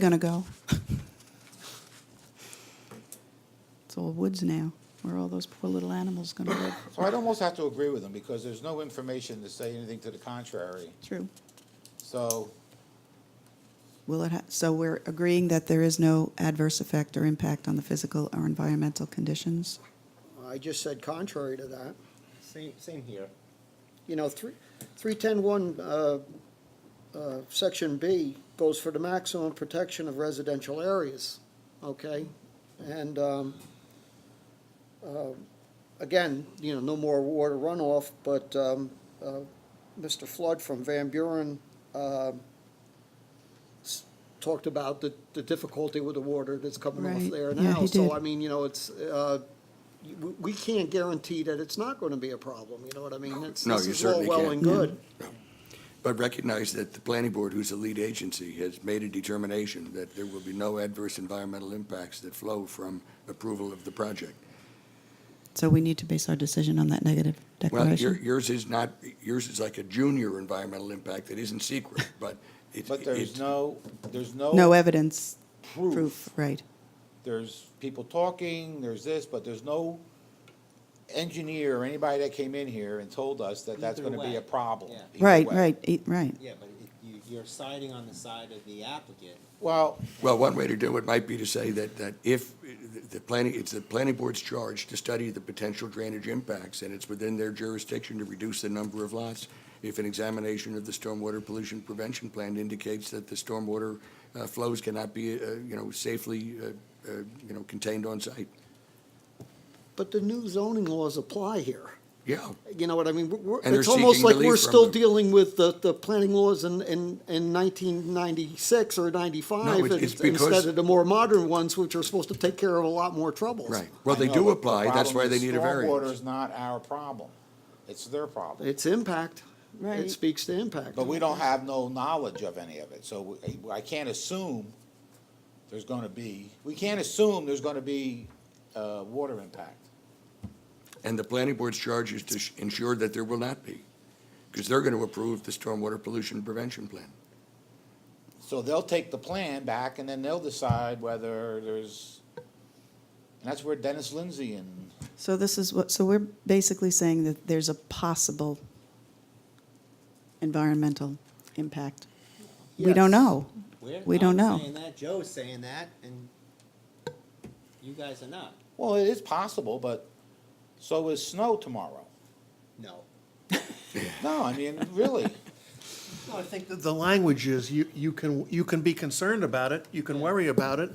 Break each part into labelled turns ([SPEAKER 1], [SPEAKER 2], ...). [SPEAKER 1] going to go? It's all woods now. Where are all those poor little animals going to live?
[SPEAKER 2] So I'd almost have to agree with him, because there's no information to say anything to the contrary.
[SPEAKER 1] True.
[SPEAKER 2] So,
[SPEAKER 1] Will it, ha- so we're agreeing that there is no adverse effect or impact on the physical or environmental conditions?
[SPEAKER 3] I just said contrary to that.
[SPEAKER 4] Same, same here.
[SPEAKER 3] You know, three, three ten one, uh, uh, section B goes for the maximum protection of residential areas, okay? And, um, uh, again, you know, no more water runoff, but, um, uh, Mr. Flood from Van Buren, um, s- talked about the, the difficulty with the water that's coming
[SPEAKER 1] Right.
[SPEAKER 3] off there
[SPEAKER 1] Yeah,
[SPEAKER 3] now.
[SPEAKER 1] he did.
[SPEAKER 3] So, I mean, you know, it's, uh, we- we can't guarantee that it's not going to be a problem, you know what I mean? It's-
[SPEAKER 5] No,
[SPEAKER 3] this
[SPEAKER 5] you
[SPEAKER 3] is all
[SPEAKER 5] certainly
[SPEAKER 3] Well
[SPEAKER 5] can't.
[SPEAKER 3] and good.
[SPEAKER 5] But recognize that the planning board, who's the lead agency, has made a determination that there will be no adverse environmental impacts that flow from approval of the project.
[SPEAKER 1] So we need to base our decision on that negative
[SPEAKER 5] Well, your-
[SPEAKER 1] declaration?
[SPEAKER 5] yours is not, yours is like a junior environmental impact that isn't secret, but it's.
[SPEAKER 2] but there's
[SPEAKER 5] it's-
[SPEAKER 2] no, there's no.
[SPEAKER 1] No e- evidence,
[SPEAKER 2] Proof.
[SPEAKER 1] proof, right.
[SPEAKER 2] There's people talking, there's this, but there's no engineer or anybody that came in here and told us that that's
[SPEAKER 4] Either
[SPEAKER 2] gonna be
[SPEAKER 4] way,
[SPEAKER 2] a problem.
[SPEAKER 4] yeah.
[SPEAKER 2] either
[SPEAKER 1] Right,
[SPEAKER 2] way.
[SPEAKER 1] right, e- right.
[SPEAKER 4] Yeah, but it- you, you're siding on the side of the applicant.
[SPEAKER 2] Well,
[SPEAKER 5] Well, one way to do it might be to say that, that if the- the planning, it's the planning board's charge to study the potential drainage impacts, and it's within their jurisdiction to reduce the number of lots. If an examination of the stormwater pollution prevention plan indicates that the stormwater uh, flows cannot be, uh, you know, safely, uh, uh, you know, contained on site.
[SPEAKER 3] But the new zoning laws apply here.
[SPEAKER 5] Yeah,
[SPEAKER 3] You know what I mean? We're- we're-
[SPEAKER 5] And they're
[SPEAKER 3] It's almost
[SPEAKER 5] seeking
[SPEAKER 3] like we're
[SPEAKER 5] relief from
[SPEAKER 3] still
[SPEAKER 5] them.
[SPEAKER 3] dealing with the, the planning laws in, in, in nineteen ninety-six or
[SPEAKER 5] No,
[SPEAKER 3] ninety-five.
[SPEAKER 5] it's- it's
[SPEAKER 3] and- Instead
[SPEAKER 5] because-
[SPEAKER 3] of the more modern ones, which are supposed to take care of a lot more troubles.
[SPEAKER 5] right. Well,
[SPEAKER 2] I
[SPEAKER 5] they
[SPEAKER 2] know,
[SPEAKER 5] do
[SPEAKER 2] but the
[SPEAKER 5] apply, that's
[SPEAKER 2] problem
[SPEAKER 5] why
[SPEAKER 2] is
[SPEAKER 5] they need a
[SPEAKER 2] Stormwater
[SPEAKER 5] variance.
[SPEAKER 2] is not our problem, it's their problem.
[SPEAKER 3] It's impact.
[SPEAKER 1] Right.
[SPEAKER 3] It speaks to impact.
[SPEAKER 2] But we don't have no knowledge of any of it, so we- I can't assume there's gonna be, we can't assume there's gonna be, uh, water impact.
[SPEAKER 5] And the planning board's charge is to sh- ensure that there will not be, because they're going to approve the stormwater pollution prevention plan.
[SPEAKER 2] So they'll take the plan back and then they'll decide whether there's, and that's where Dennis Lindsay and,
[SPEAKER 1] So this is what, so we're basically saying that there's a possible environmental impact. We don't
[SPEAKER 3] Yes.
[SPEAKER 1] know.
[SPEAKER 4] We're-
[SPEAKER 1] We don't
[SPEAKER 4] I'm
[SPEAKER 1] know.
[SPEAKER 4] Saying that, Joe's saying that, and you guys are not.
[SPEAKER 2] well, it is possible, but so is snow tomorrow.
[SPEAKER 4] No.
[SPEAKER 2] No, I mean, really,
[SPEAKER 6] Well, I think that the language is, you, you can, you can be concerned about it, you can worry about it,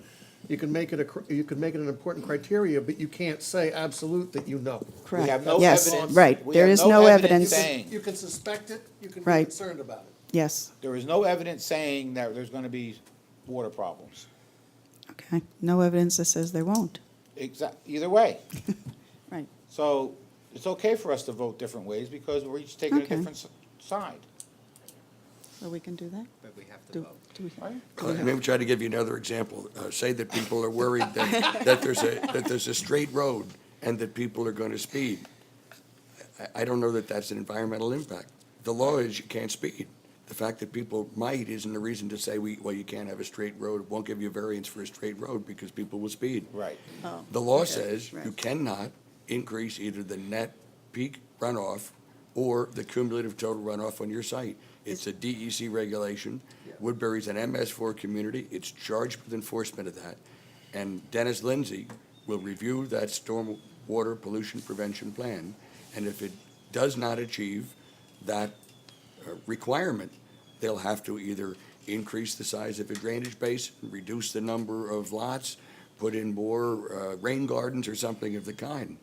[SPEAKER 6] you can make it a, cr- you can make it an important criteria, but you can't say absolute that you know.
[SPEAKER 2] we
[SPEAKER 1] Correct.
[SPEAKER 2] have no
[SPEAKER 1] Yes,
[SPEAKER 2] evidence.
[SPEAKER 1] Right,
[SPEAKER 2] we
[SPEAKER 1] there
[SPEAKER 2] have
[SPEAKER 1] is no evidence.
[SPEAKER 2] saying-
[SPEAKER 6] You can suspect it, you can be
[SPEAKER 1] Right.
[SPEAKER 6] concerned about it.
[SPEAKER 1] Yes,
[SPEAKER 2] There is no evidence saying that there's gonna be water problems,
[SPEAKER 1] okay. No evidence that says there won't.
[SPEAKER 2] exact, either way.
[SPEAKER 1] Right.
[SPEAKER 2] So it's okay for us to vote different ways because we're each taking a
[SPEAKER 1] Okay.
[SPEAKER 2] different s- side,
[SPEAKER 1] So we can do that?
[SPEAKER 4] But we have to
[SPEAKER 1] Do,
[SPEAKER 4] vote.
[SPEAKER 1] do we?
[SPEAKER 2] right?
[SPEAKER 1] Do we
[SPEAKER 5] Let
[SPEAKER 1] have-
[SPEAKER 5] me try to give you another example. Uh, Say that people are worried that, that there's a, that there's a straight road and that people are going to speed. I, I don't know that that's an environmental impact. The law is you can't speed. The fact that people might isn't a reason to say, we, well, you can't have a straight road, It won't give you a variance for a straight road because people will speed.
[SPEAKER 2] Right.
[SPEAKER 5] The law says you
[SPEAKER 1] right.
[SPEAKER 5] cannot increase either the net peak runoff or the cumulative total runoff on your site. It's a DEC regulation. Woodbury's an MS4 community. It's charged with enforcement of that. And Dennis Lindsay will review that stormwater pollution prevention plan. And if it does not achieve that uh, requirement, they'll have to either increase the size of a drainage base, reduce the number of lots, put in more uh, rain gardens or something of the kind.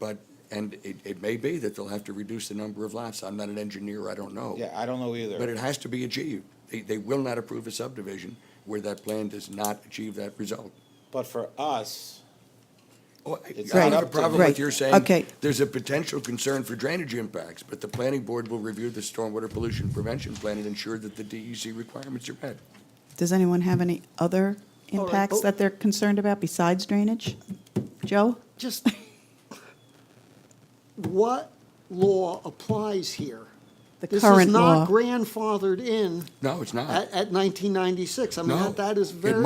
[SPEAKER 5] But, and it, it may be that they'll have to reduce the number of lots. I'm not an engineer, I don't know.
[SPEAKER 2] Yeah, I don't know either.
[SPEAKER 5] But it has to be achieved. They, they will not approve a subdivision where that plan does not achieve that result.
[SPEAKER 2] But for us,
[SPEAKER 5] Oh, I
[SPEAKER 2] It's
[SPEAKER 5] I don't
[SPEAKER 1] not
[SPEAKER 5] have a
[SPEAKER 2] up to
[SPEAKER 5] problem
[SPEAKER 1] them.
[SPEAKER 5] with your saying,
[SPEAKER 1] Okay.
[SPEAKER 5] there's a potential concern for drainage impacts, but the planning board will review the stormwater pollution prevention plan and ensure that the DEC requirements are met.
[SPEAKER 1] Does anyone have any other
[SPEAKER 3] right, Oh.
[SPEAKER 1] impacts
[SPEAKER 3] but-
[SPEAKER 1] that they're concerned about besides drainage? Joe?
[SPEAKER 3] Just, what law applies here?
[SPEAKER 1] the
[SPEAKER 3] This is
[SPEAKER 1] current law.
[SPEAKER 3] not grandfathered in
[SPEAKER 5] No, it's not.
[SPEAKER 3] at, at nineteen ninety-six. I mean,
[SPEAKER 5] No.
[SPEAKER 3] that- that is
[SPEAKER 5] It
[SPEAKER 3] very.